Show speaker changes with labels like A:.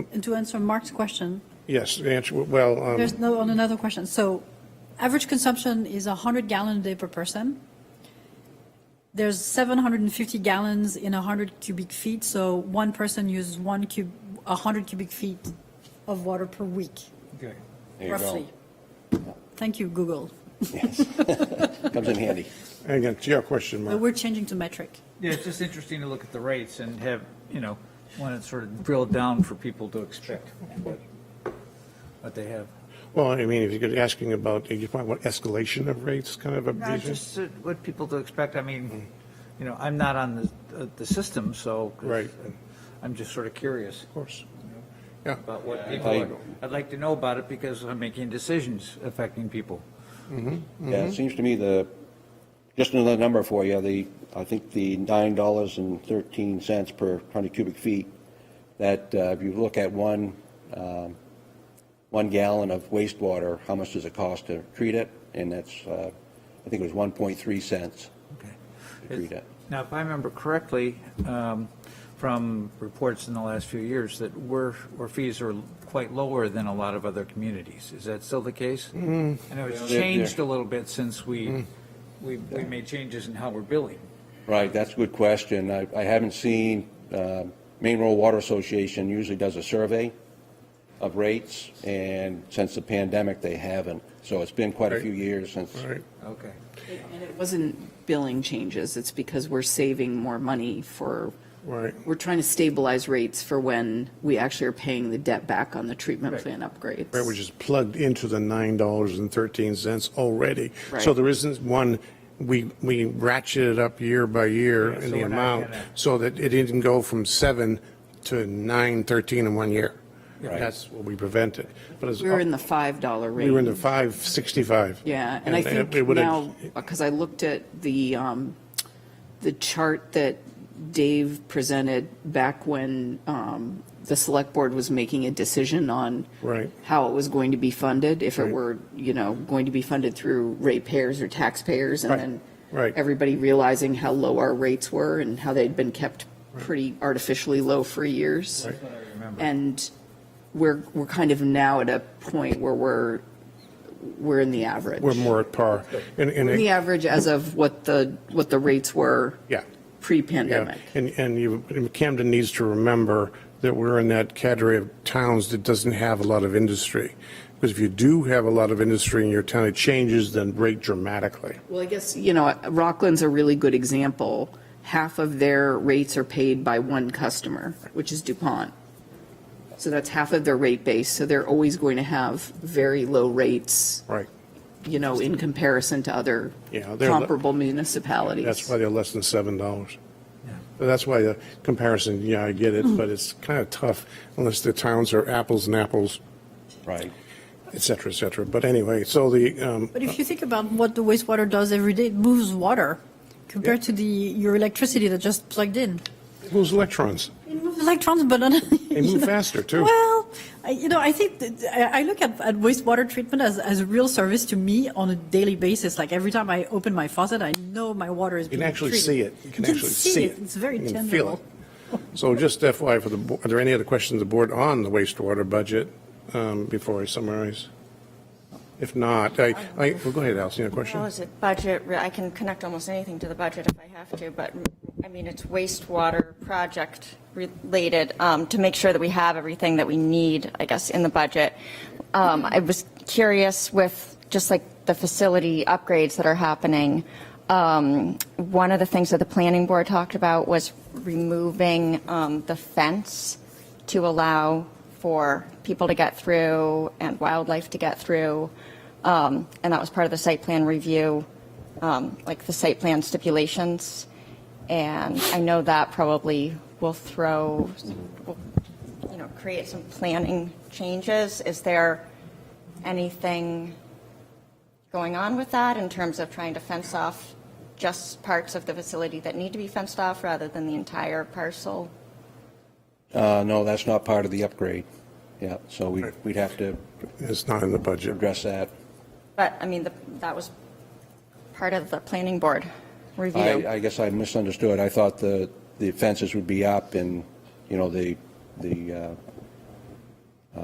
A: And to answer Mark's question,
B: Yes, the answer, well, um,
A: there's no, on another question, so average consumption is 100 gallon a day per person. There's 750 gallons in 100 cubic feet, so one person uses one cub, 100 cubic feet of water per week,
B: okay.
C: There you go.
A: roughly. Thank you, Google.
C: Comes in handy.
B: And again, to your question,
A: But
B: Mark,
A: we're changing to metric.
D: Yeah, it's just interesting to look at the rates and have, you know, want to sort of drill down for people to expect what what they have.
B: well, I mean, if you're asking about, you find what escalation of rates kind of a
D: No,
B: vision?
D: just uh, what people to expect, I mean, you know, I'm not on the, uh, the system, so.
B: Right.
D: I'm just sort of curious
B: Of course. Yeah,
D: about what people, are- I'd like to know about it because I'm making decisions affecting people.
C: Yeah, it seems to me the, just another number for you, the, I think the nine dollars and thirteen cents per hundred cubic feet, that uh, if you look at one, um, one gallon of wastewater, how much does it cost to treat it? And that's, uh, I think it was one point three cents
D: Okay.
C: to treat it.
D: Now, if I remember correctly, um, from reports in the last few years, that we're, our fees are quite lower than a lot of other communities. Is that still the case? I know it's
C: they're-
D: changed a little bit since we, we we made changes in how we're billing.
C: Right, that's a good question. I, I haven't seen, uh, Maine Rural Water Association usually does a survey of rates, and since the pandemic, they haven't. So it's been quite a few years since.
B: all right.
D: Okay.
E: And it wasn't billing changes, it's because we're saving more money for,
B: Right.
E: we're trying to stabilize rates for when we actually are paying the debt back on the treatment plan upgrades.
B: Right, which is plugged into the nine dollars and thirteen cents already. So
E: Right.
B: there isn't one, we, we ratcheted up year by year
D: Yeah,
B: in
D: so
B: the
D: we're not
B: amount,
D: gonna-
B: so that it didn't go from seven to nine thirteen in one year. That's what we prevented. But it's,
E: We were in the $5 range.
B: we were in the five sixty-five.
E: Yeah, and I think
B: it would've-
E: now, because I looked at the, um, the chart that Dave presented back when um, the select board was making a decision on
B: Right.
E: how it was going to be funded, if it
B: Right.
E: were, you know, going to be funded through ratepayers or taxpayers, and
B: Right,
E: then
B: right.
E: everybody realizing how low our rates were and how they'd been kept pretty artificially low for years. And we're, we're kind of now at a point where we're, we're in the average.
B: We're more at par. And, and,
E: The
B: it-
E: average as of what the, what the rates were
B: yeah. Yeah,
E: pre-pandemic.
B: and, and you, and Camden needs to remember that we're in that category of towns that doesn't have a lot of industry. Because if you do have a lot of industry in your town, it changes the rate dramatically.
E: Well, I guess, you know, Rockland's a really good example. Half of their rates are paid by one customer, which is DuPont. So that's half of their rate base, so they're always going to have very low rates,
B: Right.
E: you know, in comparison to other
B: Yeah, they're-
E: comparable municipalities.
B: That's why they're less than seven dollars. That's why the comparison, yeah, I get it, but it's kind of tough unless the towns are apples and apples,
C: Right.
B: et cetera, et cetera. But anyway, so the, um,
A: But
C: Uh.
A: if you think about what the wastewater does every day, it moves water compared to the, your electricity that just plugged in.
B: those electrons,
A: It moves electrons, but not.
B: they move faster too.
A: Well, I, you know, I think that uh, I, I look at, at wastewater treatment as, as a real service to me on a daily basis. Like every time I open my faucet, I know my water is
B: You
A: being
B: can
A: treated.
B: actually see it. You can actually see
A: see
B: it.
A: It's very
B: You can feel
A: tangible.
B: it. So just FYI, for the, bo- are there any other questions the board on the wastewater budget um, before I summarize? If not, I, I, well, go ahead, Allison, you have a question?
F: How is it budget, I can connect almost anything to the budget if I have to, but, I mean, it's wastewater project related, um, to make sure that we have everything that we need, I guess, in the budget. Um, I was curious with, just like the facility upgrades that are happening, um, one of the things that the planning board talked about was removing um, the fence to allow for people to get through and wildlife to get through. Um, And that was part of the site plan review, um, like the site plan stipulations. And I know that probably will throw, will, you know, create some planning changes. Is there anything going on with that in terms of trying to fence off just parts of the facility that need to be fenced off rather than the entire parcel?
C: Uh, no, that's not part of the upgrade. Yeah, so we, we'd have to
B: It's not in the budget.
C: address that.
F: But, I mean, the- that was part of the planning board
C: I,
F: review.
C: I guess I misunderstood. I thought the, the fences would be up and, you know, the, the, uh,